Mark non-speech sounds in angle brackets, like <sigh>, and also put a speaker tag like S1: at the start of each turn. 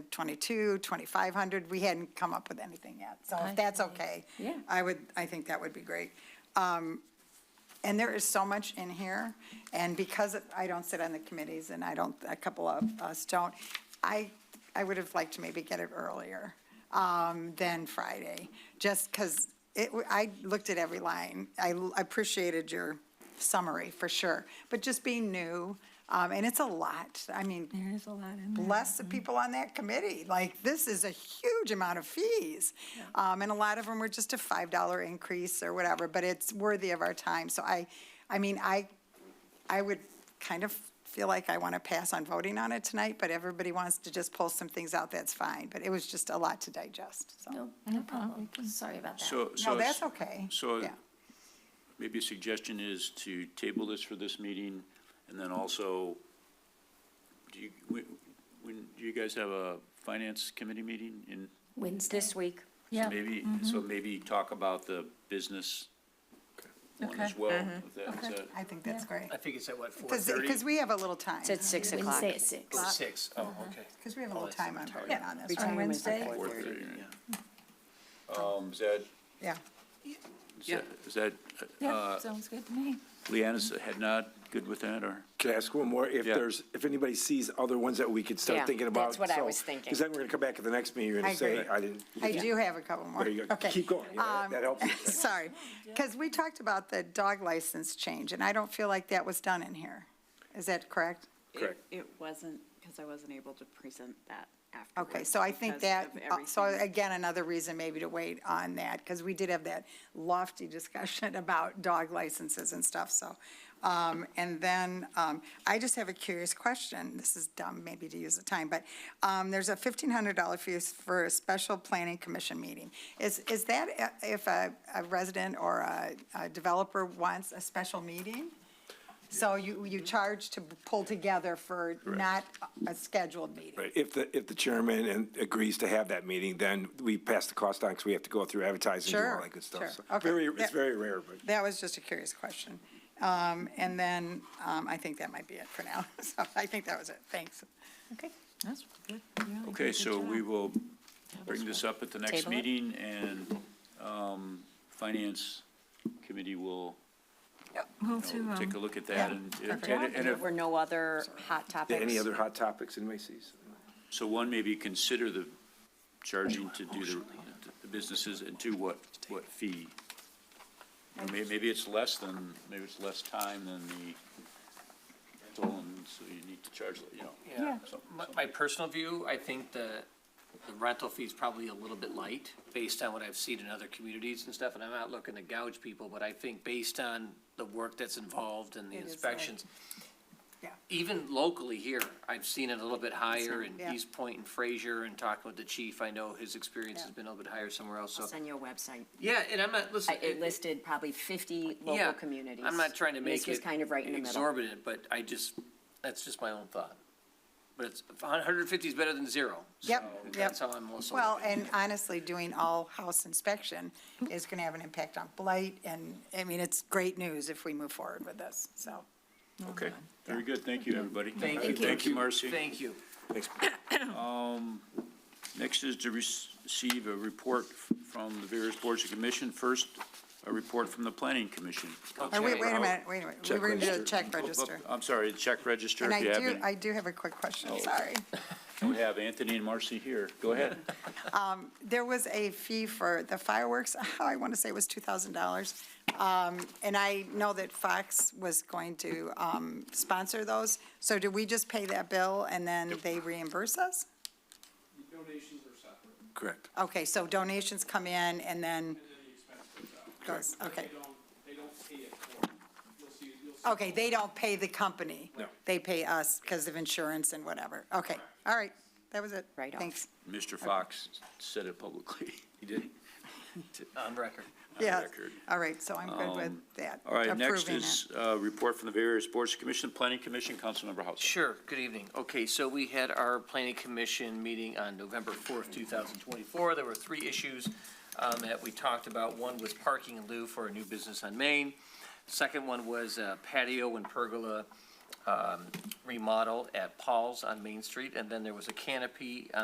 S1: 22, 2,500. We hadn't come up with anything yet, so if that's okay.
S2: Yeah.
S1: I would, I think that would be great. Um, And there is so much in here, and because I don't sit on the committees, and I don't, a couple of us don't, I, I would have liked to maybe get it earlier um, than Friday, just because it, I looked at every line. I l- appreciated your summary, for sure, but just being new, um, and it's a lot. I mean,
S2: There is a lot in there.
S1: bless the people on that committee. Like, this is a huge amount of fees. Um, and a lot of them were just a $5 increase or whatever, but it's worthy of our time. So I, I mean, I, I would kind of feel like I want to pass on voting on it tonight, but everybody wants to just pull some things out, that's fine. But it was just a lot to digest, so.
S3: No, no problem. Sorry about that.
S4: So, so.
S1: No, that's okay.
S4: So
S1: Yeah.
S4: maybe a suggestion is to table this for this meeting, and then also, do you, when, when, do you guys have a finance committee meeting in?
S3: Wednesday.
S2: This week.
S4: So
S2: Yeah.
S4: maybe, so maybe talk about the business one as
S2: Okay.
S4: well. if that- is that-
S1: I think that's great.
S5: I think it's at what, four thirty?
S1: Because we have a little time.
S2: It's at 6 o'clock.
S3: Wednesday at six.
S5: Or six, oh, okay.
S1: Because we have a little time on voting on this.
S2: Retirement
S1: right?
S2: is at
S1: Wednesday?
S4: 4:30, yeah. Um, is that,
S1: Yeah.
S4: is that- is that,
S2: Yeah,
S4: uh,
S2: sounds good to me.
S4: Leanna's head nod, good with that, or?
S6: Can I ask one more? If
S4: Yeah.
S6: there's, if anybody sees other ones that we could
S2: Yeah,
S6: start thinking about?
S2: that's what I was thinking.
S6: Because then we're going to come back at the next meeting, you're
S1: I
S6: going to say,
S1: agree.
S6: I didn't. you
S1: I
S6: didn't-
S1: do have a couple more.
S6: There you go.
S1: Okay.
S6: Keep going. You know, that-
S1: Um, <laughs>
S6: That helps.
S1: Sorry, because we talked about the dog license change, and I don't feel like that was done in here. Is that correct?
S7: It-
S6: Correct.
S7: It wasn't, because I wasn't able to present that afterwards.
S1: Okay, so I think
S7: because
S1: that,
S7: of
S1: uh, so
S7: everything.
S1: again, another reason maybe to wait on that, because we did have that lofty discussion <laughs> about dog licenses and stuff, so. um, And then, um, I just have a curious question, this is dumb maybe to use the time, but um, there's a $1,500 fee for a special planning commission meeting. Is, is that i- if a a resident or a a developer wants a special meeting? So you, you charge to pull together for not a scheduled meeting?
S6: Right. If the, if the chairman and- agrees to have that meeting, then we pass the cost on because we have to go through advertising and do
S1: Sure,
S6: all that good stuff.
S1: sure.
S6: So
S1: Okay.
S6: Very,
S1: Yeah.
S6: it's very rare, but.
S1: That was just a curious question. Um, And then um, I think that might be it for now. <laughs> So I think that was it. Thanks.
S3: Okay.
S2: That's good. You really did
S4: Okay,
S2: a good
S4: so
S2: job.
S4: we will bring this up at the next
S2: Table it.
S4: meeting, and um, Finance Committee will you
S2: Move to,
S4: know, take a
S2: um,
S4: look at that,
S1: yeah,
S4: and,
S1: perfect.
S4: and- and
S2: there
S4: if,
S2: were no other hot topics.
S6: Any other hot topics anybody sees?
S4: so one, maybe consider the charging to do the- the businesses, and two, what, what fee? You know, may- Maybe it's less than, maybe it's less time than the rental, and so you need to charge, you know.
S5: Yeah.
S4: something-
S5: My, my personal view, I think the, the rental fee's probably a little bit light, based on what I've seen in other communities and stuff, and I'm not looking to gouge people, but I think based on the work that's involved and the
S1: It is light.
S5: inspections.
S1: Yeah.
S5: Even locally here, I've seen it a little bit higher in
S1: Yeah.
S5: East Point and Fraser, and talking with the chief, I know his experience has
S1: Yeah.
S5: been a little bit higher somewhere else, so.
S3: It's on your website.
S5: Yeah, and I'm not, listen.
S3: I- It listed probably 50
S5: Yeah,
S3: local communities.
S5: I'm not trying to
S3: And
S5: make it.
S3: This was kind of right in the middle.
S5: Exorbitant, but I just, that's just my own thought. But it's, hundred and fifty is better than zero.
S1: Yep,
S5: so
S1: yep.
S5: That's how I'm also.
S1: Well,
S5: looking at
S1: and honestly, doing all house inspection is going to have an impact on blight. And, I mean, it's great news if we move forward with this, so.
S4: Okay, very good, thank you, everybody.
S5: it. Thank you.
S4: Thank you, Marcy.
S5: Thank you.
S6: Thanks.
S4: Next is to receive a report f- from the various boards and commission. First, a report from the planning commission. Oh,
S1: Or wait,
S5: Okay.
S1: wait a minute, wait a minute. We
S6: Check
S1: were going to do a
S6: register.
S1: check register.
S4: I'm sorry, the check register,
S1: And
S4: if
S1: I
S4: you have,
S1: do,
S4: any-
S1: I do have a quick question,
S4: Oh.
S1: sorry.
S4: we have Anthony and Marcy here.
S1: <laughs>
S4: Go ahead.
S1: there was a fee for the fireworks, <laughs> I want to say it was $2,000. Um, And I know that Fox was going to um, sponsor those, so do we just pay that bill and then they reimburse us?
S8: Donations are separate,
S6: Correct.
S1: Okay, so donations come in and then,
S8: and then the expense goes out.
S1: Goes,
S8: But
S1: okay.
S8: They don't, they don't pay it for, it. you'll see, you'll see.
S1: okay, they don't pay the company?
S6: No.
S1: They pay us because of insurance and whatever. Okay, all right, that was it.
S3: Right off.
S1: Thanks.
S4: Mr. Fox said it publicly. He did.
S5: On record.
S1: Yeah,
S4: record. Um,
S1: all right, so I'm good with that.
S4: All right, next
S1: approving it.
S4: is a report from the various boards and commission, planning commission, Councilmember House.
S5: Sure, good evening. Okay, so we had our planning commission meeting on November fourth, two thousand twenty-four. There were three issues um, that we talked about. One was parking in lieu for a new business on Main. Second one was uh, patio and pergola um, remodel at Paul's on Main Street. And then there was a canopy